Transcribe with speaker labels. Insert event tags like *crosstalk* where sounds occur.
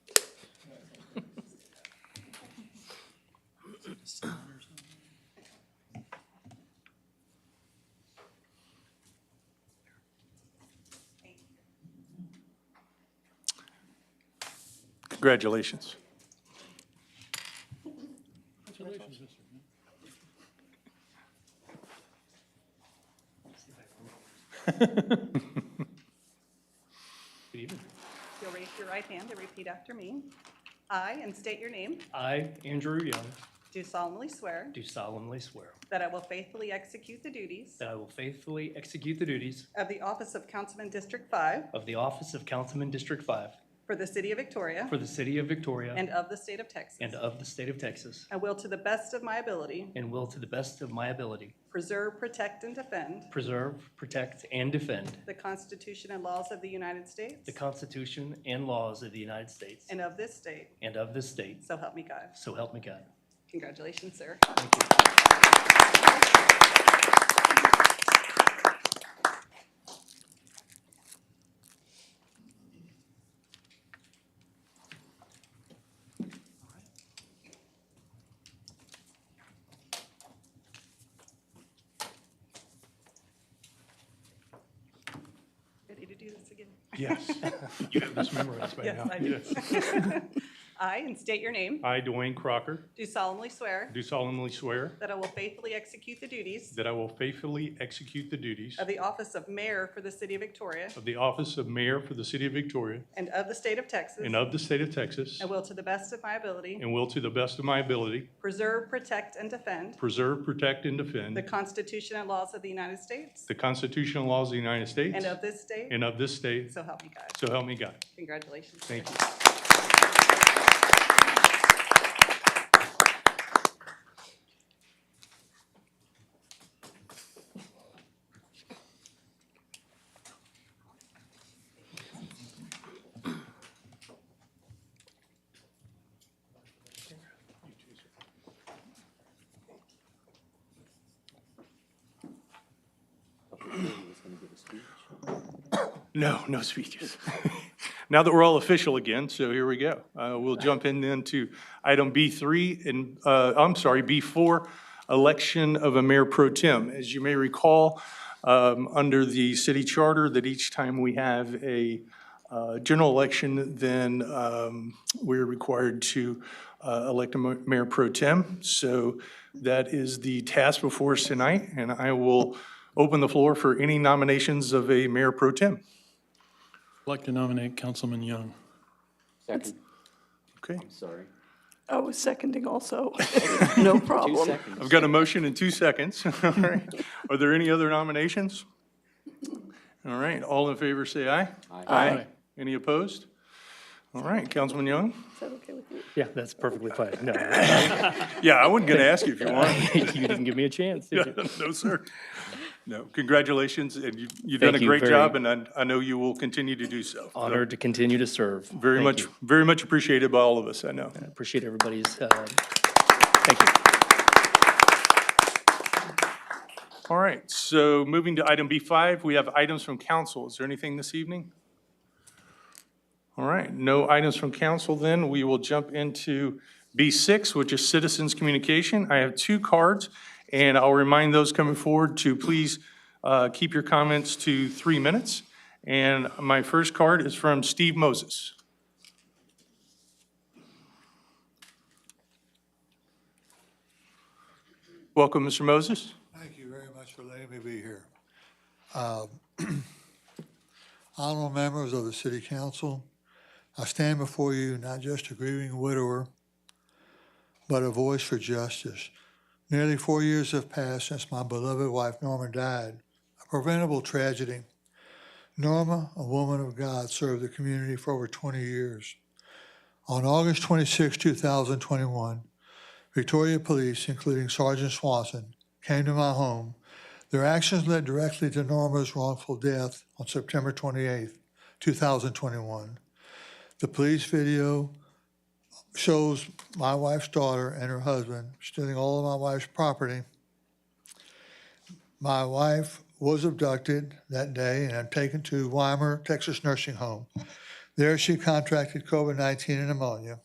Speaker 1: Congratulations.
Speaker 2: If You'll raise your right hand and repeat after me. I, and state your name,
Speaker 3: I, Andrew Young,
Speaker 2: do solemnly swear
Speaker 3: do solemnly swear
Speaker 2: that I will faithfully execute the duties
Speaker 3: that I will faithfully execute the duties
Speaker 2: of the office of Councilman District 5
Speaker 3: of the office of Councilman District 5
Speaker 2: for the city of Victoria
Speaker 3: for the city of Victoria
Speaker 2: and of the state of Texas.
Speaker 3: and of the state of Texas,
Speaker 2: I will, to the best of my ability,
Speaker 3: and will to the best of my ability
Speaker 2: preserve, protect, and defend
Speaker 3: preserve, protect, and defend
Speaker 2: the Constitution and laws of the United States
Speaker 3: the Constitution and laws of the United States
Speaker 2: and of this state,
Speaker 3: and of this state,
Speaker 2: so help me God.
Speaker 3: so help me God.
Speaker 2: Congratulations, sir. Ready to do this again?
Speaker 4: *laughs*
Speaker 1: Yes. You have this memorized by
Speaker 2: Yes,
Speaker 1: now.
Speaker 2: I do. *laughs* I, and state your name,
Speaker 4: I, Dwayne Crocker,
Speaker 2: do solemnly swear
Speaker 4: do solemnly swear
Speaker 2: that I will faithfully execute the duties
Speaker 4: that I will faithfully execute the duties
Speaker 2: of the office of mayor for the city of Victoria
Speaker 4: of the office of mayor for the city of Victoria
Speaker 2: and of the state of Texas.
Speaker 4: and of the state of Texas,
Speaker 2: I will, to the best of my ability,
Speaker 4: and will to the best of my ability
Speaker 2: preserve, protect, and defend
Speaker 4: preserve, protect, and
Speaker 2: the
Speaker 4: defend
Speaker 2: Constitution and laws of the United States
Speaker 4: the constitutional laws of the United States
Speaker 2: and of this state.
Speaker 4: and of this state,
Speaker 2: So help me God.
Speaker 4: so help me God.
Speaker 2: Congratulations.
Speaker 4: Thank you.
Speaker 1: No, no speeches. *laughs* Now that we're all official again, so here we go. Uh, We'll jump in then to item B3, and, uh, I'm sorry, B4, election of a mayor pro tem. As you may recall, um, under the city charter, that each time we have a uh, general election, then um, we're required to uh, elect a mo- mayor pro tem. So that is the task before us tonight, and I will open the floor for any nominations of a mayor pro tem.
Speaker 5: I'd like to nominate Councilman Young.
Speaker 6: Second,
Speaker 1: Okay.
Speaker 6: sorry.
Speaker 7: I was oh,
Speaker 6: *laughs*
Speaker 7: seconding also. No
Speaker 6: Two
Speaker 7: problem.
Speaker 6: seconds.
Speaker 1: I've got a motion in two seconds. *laughs* All right. Are there any other nominations? All right, all in favor, say aye.
Speaker 5: Aye.
Speaker 1: Any opposed? All right, Councilman Young?
Speaker 7: Is that okay with you?
Speaker 8: Yeah, that's perfectly fine. No, *laughs*
Speaker 1: Yeah, I wasn't going to ask you if you wanted.
Speaker 8: you didn't give me a chance, did you?
Speaker 1: No, sir. No, congratulations, and you- you've done a
Speaker 8: Thank you
Speaker 1: great
Speaker 8: very-
Speaker 1: job, and I- I know you will continue to do so.
Speaker 8: Honored to continue to serve.
Speaker 1: Very
Speaker 8: Thank
Speaker 1: much,
Speaker 8: you.
Speaker 1: very much appreciated by all of us, I know.
Speaker 8: Appreciate everybody's, uh, thank you.
Speaker 1: All right, so moving to item B5, we have items from council. Is there anything this evening? All right, no items from council then. We will jump into B6, which is citizens' communication. I have two cards, and I'll remind those coming forward to please uh, keep your comments to three minutes. And my first card is from Steve Moses. Welcome, Mr. Moses.
Speaker 9: Thank you very much for letting me be here. Um, *clears throat* Honorable members of the city council, I stand before you not just a grieving widower, but a voice for justice. Nearly four years have passed since my beloved wife Norma died, a preventable tragedy. Norma, a woman of God, served the community for over 20 years. On August 26, 2021, Victoria Police, including Sergeant Swanson, came to my home. Their actions led directly to Norma's wrongful death on September 28, 2021. The police video shows my wife's daughter and her husband stealing all of my wife's property. My wife was abducted that day and taken to Weimer, Texas Nursing Home. There, she contracted COVID 19 and pneumonia.